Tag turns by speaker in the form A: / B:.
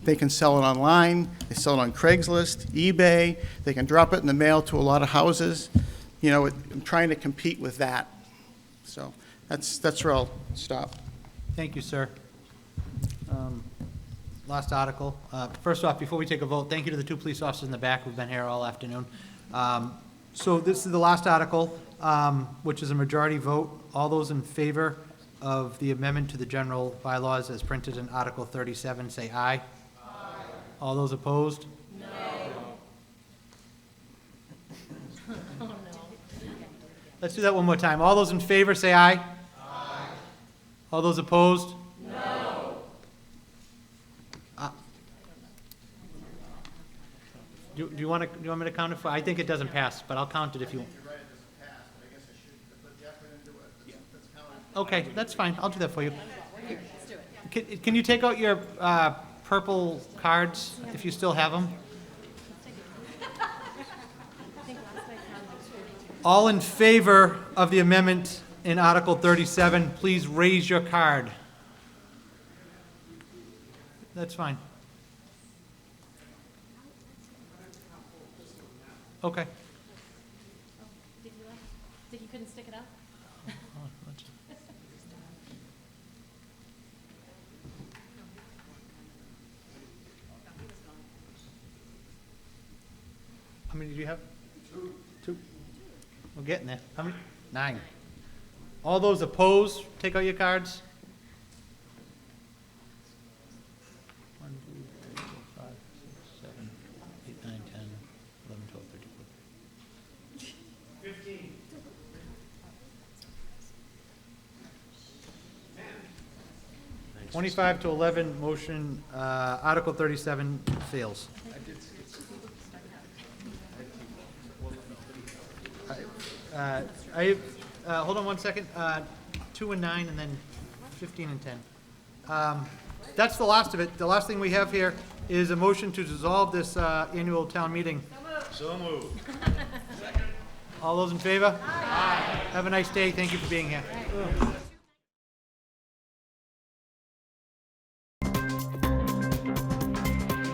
A: They can sell it online, they sell it on Craigslist, eBay, they can drop it in the mail to a lot of houses. You know, it- I'm trying to compete with that. So that's, that's where I'll stop.
B: Thank you, sir. Um, Last article. Uh, First off, before we take a vote, thank you to the two police officers in the back who've been here all afternoon. Um, So this is the last article, um, which is a majority vote. All those in favor of the amendment to the general bylaws as printed in Article 37, say aye. Aye. All those opposed? No. Let's do that one more time. All those in favor, say aye. All those opposed? No. Uh, Do do you want to, do you want me to count it for, I think it doesn't pass, but I'll count it if you. Okay, that's fine, I'll do that for you. Can can you take out your uh, purple cards, if you still have them? All in favor of the amendment in Article 37, please raise your card. That's fine. Okay.
C: Did you, think you couldn't stick it up?
B: How many do you have? Two. Two. We're getting there. How many? Nine. All those opposed, take out your cards. One, two, three, four, five, six, seven, eight, nine, 10, 11, 12, 13, 14. Twenty-five to eleven, motion, uh, Article thirty-seven fails. Uh, I, uh, hold on one second, uh, two and nine, and then fifteen and ten. Um, That's the last of it. The last thing we have here is a motion to dissolve this, uh, annual town meeting. So moved. All those in favor? Aye. Have a nice day. Thank you for being here.